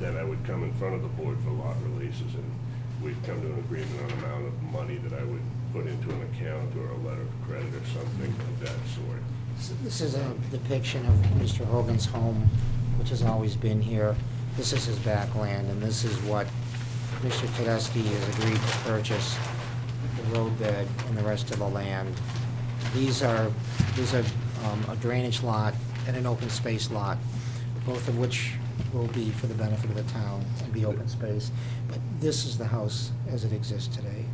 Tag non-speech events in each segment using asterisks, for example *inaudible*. then I would come in front of the board for lot releases, and we'd come to an agreement on amount of money that I would put into an account or a letter of credit or something of that sort. So This is a depiction of Mr. Hogan's home, which has always been here. This is his backland, and this is what Mr. Tedeschi has agreed to purchase, the roadbed and the rest of the land. These are, these are um, a drainage lot and an open space lot, both of which will be for the benefit of the town and be open space. But this is the house as it exists today.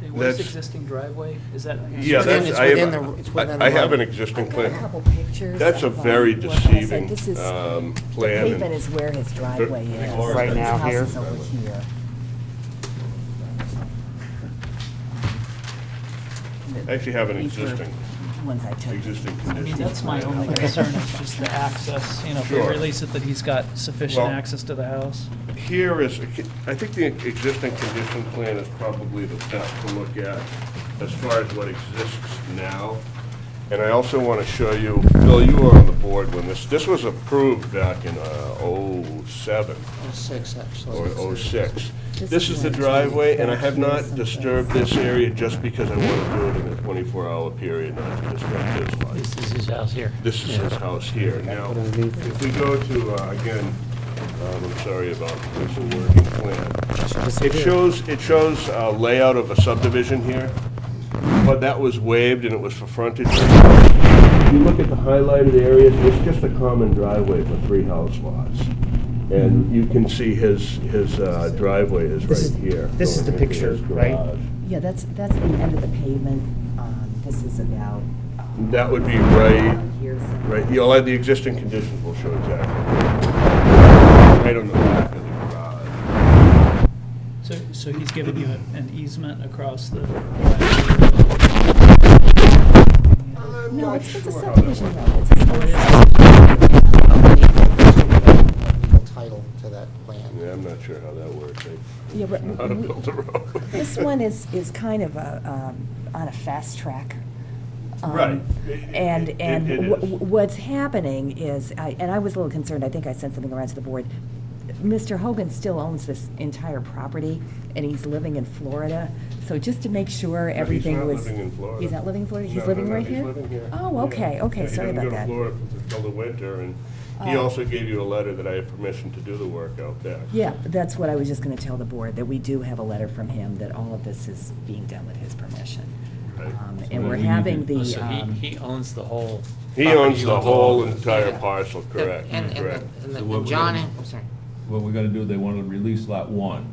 Hey, What is That's- existing driveway? Is that? Yeah, within- that's, it's I within have, the- it's within I I the have an road. existing I've got a couple plan. pictures That's a of, um, very what I said. deceiving, This is- um, The plan. and- pavement is where his driveway Right is. Right now, here. His house is over here. I actually have an These were existing, Ones I took. existing I mean, condition. that's my only concern, is just the access, you know, if we Sure. release it, that he's got sufficient Well- access to the house. Here is, I think the existing condition plan is probably the best to look at as far as what exists now. And I also want to show you, Bill, you were on the board when this, this was approved back in '07 Six, actually. or '06. This This is is the nice. driveway, and I have not Something. disturbed this area just because I want to do it in a 24-hour period, not to disrupt his life. This is his house here. This is his house here. Now, if we go to, uh, again, um, I'm sorry about this working plan. It shows, it shows uh, layout of a subdivision here, but that was waived and it was for frontage. If you look at the highlighted areas, it's just a common driveway for three house lots. And you can see his, his uh, driveway is Mm-hmm. This is- right here. this is the going into his picture, right? garage. Yeah, that's, that's the end of the pavement. Um, This is about. um, That would be right, Here's. Right, you'll have the existing conditions will show exactly. Right on the back of the garage. So, so he's giving you an easement across the. I'm No, not it's it's a sure how that subdivision works. road. It's a subdivision. legal title to that land. Yeah, I'm not sure how that works. *laughs* I Yeah, don't but know How to we- build a road. This one is, is kind of a, um, on a fast track. Um, Right. And, It- and it wh- is. wh- what's happening is, I- and I was a little concerned, I think I sent something around to the board. Mr. Hogan still owns this entire property, and he's living in Florida, so just to make sure he's everything not was. living in Florida. He's not living in Florida? No, He's no, living no, right he's here? living here. Oh, Yeah. okay, okay, Yeah, sorry about He that. doesn't go to Florida until the winter, and he Oh. also gave you a letter that I have permission to do the work out there. Yeah, that's what I was just gonna tell the board, that we do have a letter from him, that all of this is being done with his permission. Right. Um, And we're having the. Oh, So he, um, he owns the whole. He property, owns the owns whole all of it. entire parcel, correct, And, and correct. the- and the, So what and we- John, I'm sorry. what we're gonna do, they wanna release lot one.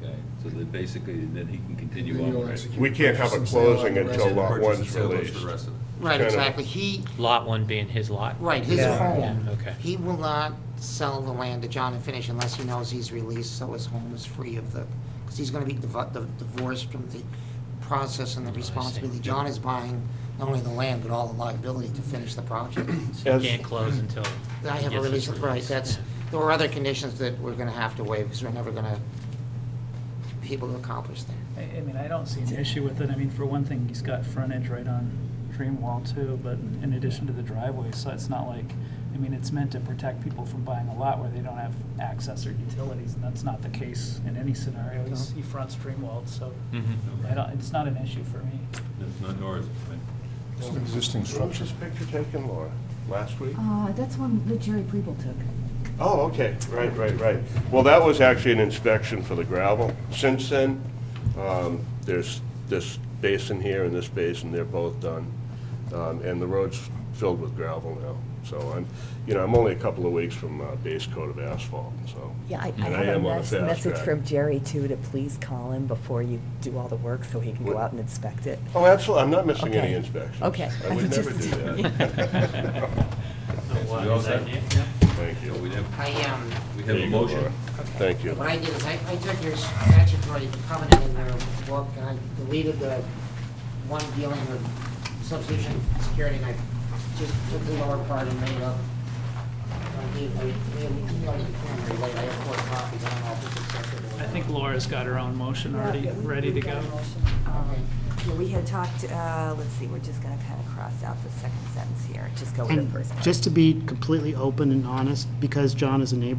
Okay. So that basically, then he can continue on with it. We can't have a closing until lot Purchase and one's sale goes for released. the rest of it. Right, Kinda- exactly. He, Lot one being his lot. right, his Yeah. home. Okay. He will not sell the land to John and Finish unless he knows he's released, so his home is free of the, because he's gonna be div- div- divorced from the process Oh, and the responsibility. John is buying not only the land, but all the liability to finish the *coughs* project. So he can't close until. I he have a gets release, his right, that's, there were other conditions that we're gonna have to waive, because we're never gonna be able to accomplish that. I, I mean, I don't see an issue with it. I mean, for one thing, he's got frontage right on Dreamwall too, but in addition to the driveway, so it's not like, I mean, it's meant to protect people from buying a lot where they don't have access or utilities, and that's not the case in any scenario. He's- He fronts Dreamwall, so Mhm. I don't, it's not an issue for me. It's not yours, right? It's an existing When was structure. this picture taken, Laura? Last week? Uh, that's one that Jerry Preble took. Oh, okay, right, right, right. Well, that was actually an inspection for the gravel. Since then, um, there's this basin here and this basin, they're both done. Um, And the road's filled with gravel now. So I'm, you know, I'm only a couple of weeks from uh, base coat of asphalt, so. Yeah, I, I And have a am on mes- fast message track. from Jerry too, to please call him before you do all the work so he can go What? out and inspect it. Oh, absolutely, I'm not missing any Okay. inspections. Okay. I would never do *laughs* Just- that. *laughs* *laughs* So what, We all is that set? you? Thank So we you. have, I, um, we have There a you go, Laura. motion. Thank you. what I did is I, I took your statutory covenant in your book and I deleted the one dealing with substitution security and I just took the lower part and made up. I gave, I, we already, like, I have four copies, I don't know if it's acceptable. I think Laura's got her own motion already, ready to go. We had talked, uh, let's see, we're just gonna kind of cross out the second sentence here, just go with the And first part. just to be completely open and honest, because John is a neighbor